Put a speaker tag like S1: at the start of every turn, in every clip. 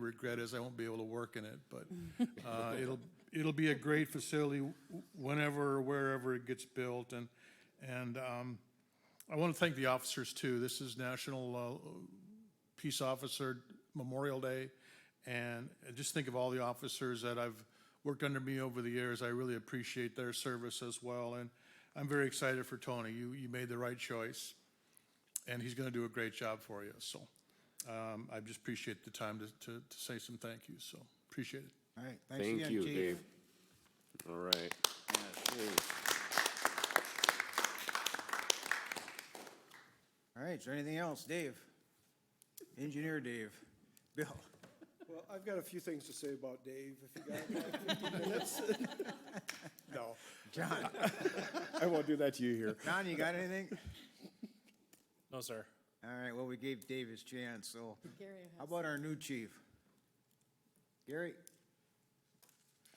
S1: regret is I won't be able to work in it, but uh, it'll, it'll be a great facility w- whenever, or wherever it gets built. And, and um, I want to thank the officers too. This is National uh, Peace Officer Memorial Day. And I just think of all the officers that I've worked under me over the years. I really appreciate their service as well. And I'm very excited for Tony. You, you made the right choice. And he's going to do a great job for you. So um, I just appreciate the time to, to, to say some thank yous. So appreciate it.
S2: All right, thanks again, Chief.
S3: Thank you, Dave. All right.
S2: All right, is there anything else? Dave? Engineer Dave? Bill?
S4: Well, I've got a few things to say about Dave, if you got about 15 minutes. No,
S2: John?
S4: I won't do that to you here.
S2: John, you got anything?
S5: No, sir.
S2: All right, well, we gave Dave his chance, so
S6: Gary
S2: how
S6: has
S2: about our new chief? Gary?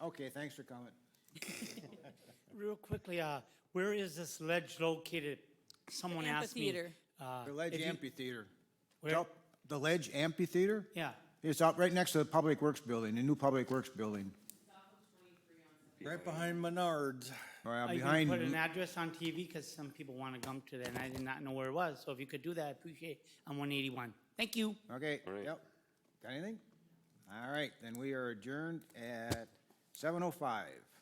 S2: Okay, thanks for coming.
S7: Real quickly, uh, where is this ledge located? Someone asked me.
S6: amphitheater.
S7: uh,
S2: The Ledge
S7: if you-
S2: Amphitheater.
S7: where-
S2: Up- The Ledge Amphitheater?
S7: Yeah,
S2: It's up right next to the Public Works Building, the new Public Works Building.
S4: Right behind Menards.
S2: Or
S7: I
S2: Uh, behind,
S7: can put an address on TV because some people want to come to that and I did not know where it was. So if you could do that, I appreciate it. I'm one eighty-one. Thank you.
S2: okay,
S3: right.
S2: yep. Got anything? All right, then we are adjourned at seven oh five.